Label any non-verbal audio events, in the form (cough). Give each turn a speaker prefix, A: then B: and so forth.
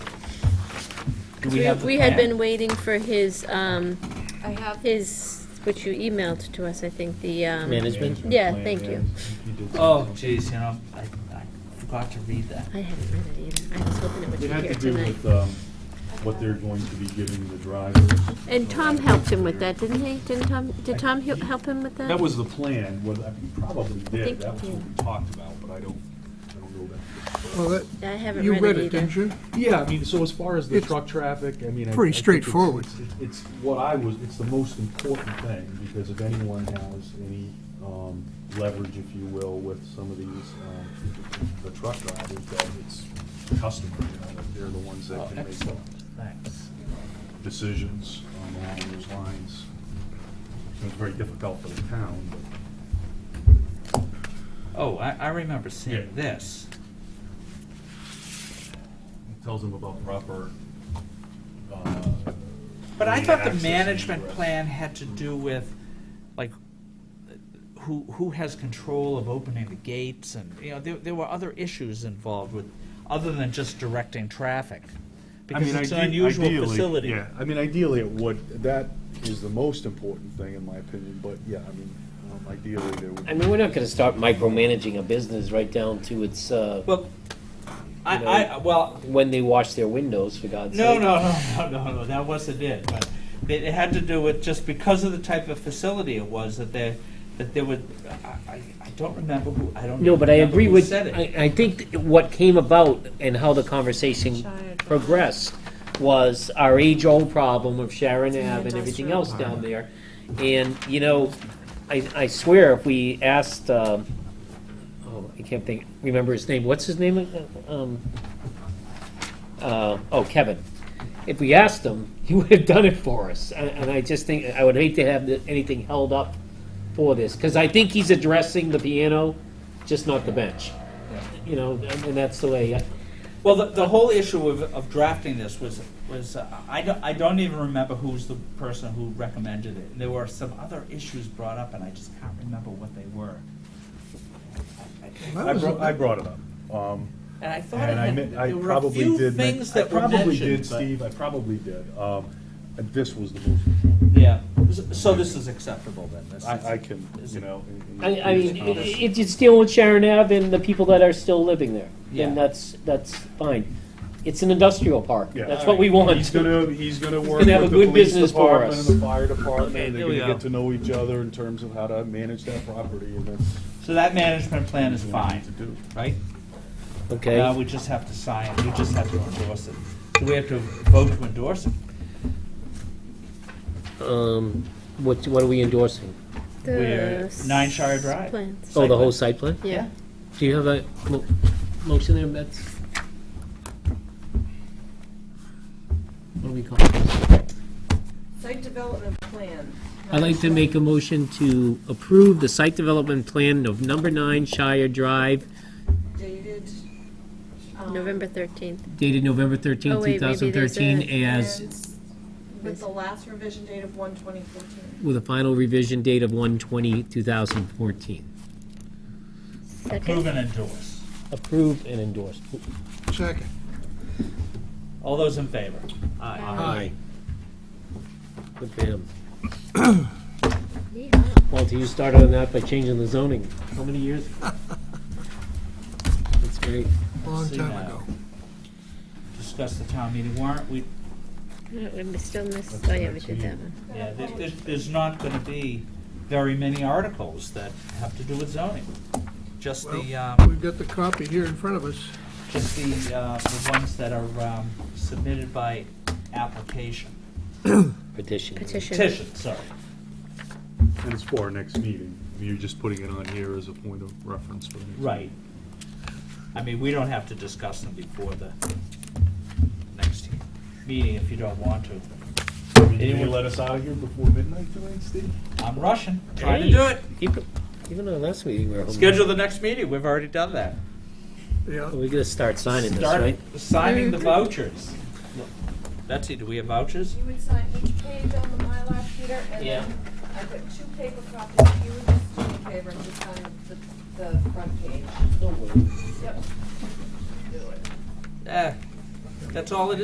A: Do we have the
B: We had
A: plan?
B: been waiting for his, um,
C: I have.
B: his, which you emailed to us, I think, the, um,
D: Management?
B: yeah, thank you.
A: Oh, jeez, you know, I, I forgot to read that.
B: I haven't read it either. I was hoping it would be
D: It had
B: here
D: to do
B: tonight.
D: with um, what they're going to be giving the drivers.
B: And Tom helped him with that, didn't he? Didn't Tom, did Tom he- help him with that?
D: That was the plan, was, you probably
B: think-
D: did, that was
B: yeah.
D: what we talked about, but I don't, I don't know that.
E: Well, that,
B: I haven't
E: you
B: read
E: read
B: it
E: it,
B: either.
E: didn't you?
D: Yeah, I mean, so as far as the
E: It's
D: truck traffic, I mean. I-
E: pretty
D: I think it's-
E: straightforward.
D: it's- It's what I was, it's the most important thing, because if anyone has any um, leverage, if you will, with some of these, um, the truck drivers, that it's customer, you know, that they're the ones that
A: Oh,
D: can make
A: excellent, thanks.
D: decisions um, along those lines. It was very difficult for the town, but.
A: Oh, I, I remember seeing
D: Yeah.
A: this.
D: It Tells them about proper. uh,
A: But I
D: lane
A: thought the
D: access and
A: management
D: egress.
A: plan had to do with, like, who, who has control of opening the gates and, you know, there, there were other issues involved with, other than just directing traffic.
D: I
A: Because
D: mean,
A: it's an
D: ide-
A: unusual
D: ideally-
A: facility.
D: Yeah, I mean, ideally it would, that is the most important thing in my opinion, but yeah, I mean, um, ideally there would.
F: I mean, we're not gonna start micromanaging a business right down to its, uh,
A: Well,
F: You
A: I,
F: know-
A: I, well,
F: when they wash their windows, for God's
A: No,
F: sake.
A: no, no, no, no, no, that wasn't it, but it it had to do with, just because of the type of facility it was, that there, that there would, I, I, I don't remember who, I don't
F: No, but I
A: remember
F: agree
A: who
F: with,
A: said it.
F: I, I think what came about and how the conversation progressed was our age-old problem of Sharon Ave and everything else down there. And, you know, I, I swear, if we asked, um, oh, I can't think, remember his name, what's his name? Um, uh, oh, Kevin. If we asked him, (laughs) he would have done it for us. And, and I just think, I would hate to have the- anything held up for this, because I think he's addressing the piano, just not the bench. You know, and and that's the way, I-
A: Well, the, the whole issue of, of drafting this was, was, uh, I don't, I don't even remember who's the person who recommended it. There were some other issues brought up, and I just can't remember what they were. I- I-
D: I brought, I brought it up. Um,
A: And I thought it
D: And I,
A: had-
D: meant- I
A: there were a
D: probably
A: few
D: did. men-
A: things that were
D: I probably
A: mentioned,
D: did,
A: but-
D: Steve, I probably did. Um, and this was the most, important.
A: Yeah, so this is acceptable then, this is.
D: I, I can,
A: Is
D: you
A: it-
D: know. in- in
F: I, I mean,
D: previous comments.
F: it, it's dealing with Sharon Ave and the people that are still living there.
A: Yeah.
F: And that's, that's fine. It's an industrial park.
D: Yeah.
F: That's what we want.
D: He's gonna, he's gonna work with
F: gonna have
D: the
F: a good
D: police
F: business for
D: department and
F: us.
D: the fire department, and
A: There
D: they're
A: we
D: gonna
A: go.
D: get to know each other in terms of how to manage that property, and that's.
A: So that management plan is
D: what we
A: fine,
D: need To do.
A: right? Now
F: Okay,
A: we just have to sign, we just have to endorse it. Do we have to vote to endorse it?
F: um, what, what are we endorsing?
B: The
A: We're Nine Shire
B: s-
A: Drive.
B: plans.
F: Oh,
A: Site
F: the
A: plan.
F: whole site plan?
B: Yeah,
F: Do you have a mo- motion there, Bets? What do we call it?
C: Site development plan.
F: I'd like to make a motion to approve the site development plan of number nine Shire Drive
C: Dated. um,
B: November thirteenth.
F: dated November thirteenth,
B: Oh,
F: two
B: wait, maybe
F: thousand
B: there's a-
F: thirteen as
C: and With the last revision date of one twenty fourteen.
F: with a final revision date of 1/20/2014.
A: Approve
B: Second,
A: and endorse.
F: Approved and endorsed.
E: Second.
A: All those in favor? Aye.
F: Aye. Good for him.
B: Yeehaw.
F: Walter, you started on that by changing the zoning. How many (laughs) years? That's great.
E: Long
A: See
E: time
A: now.
E: ago.
A: Discuss the town meeting warrant, we,
B: Yeah, we still missed, oh yeah, we did that one.
A: yeah, there- there's, there's not gonna be very many articles that have to do with zoning. Just the, um,
E: We've got the copy here in front of us.
A: just the, uh, the ones that are, um, submitted by application,
F: Petition.
B: Petition.
A: petition, sorry.
D: And it's for our next meeting. You're just putting it on here as a point of reference for the next.
A: Right. I mean, we don't have to discuss them before the next meeting if you don't want to.
D: meeting. Can you
A: Anyone-
D: let us out of here before midnight tonight, Steve?
A: I'm rushing, trying
F: Trying
A: to do it.
F: Even on last meeting, we were. home.
A: Schedule the next meeting, we've already done that.
E: Yeah,
F: We gotta start signing this,
A: Start
F: right?
A: signing the vouchers. Betsy, do we have vouchers?
C: You would sign each page on the Mylar, Peter, and
F: Yeah.
C: then I put two paper copies. You would just do me a favor and just sign the, the front page.
F: Don't worry.
C: Yep.
A: Eh, that's all it is.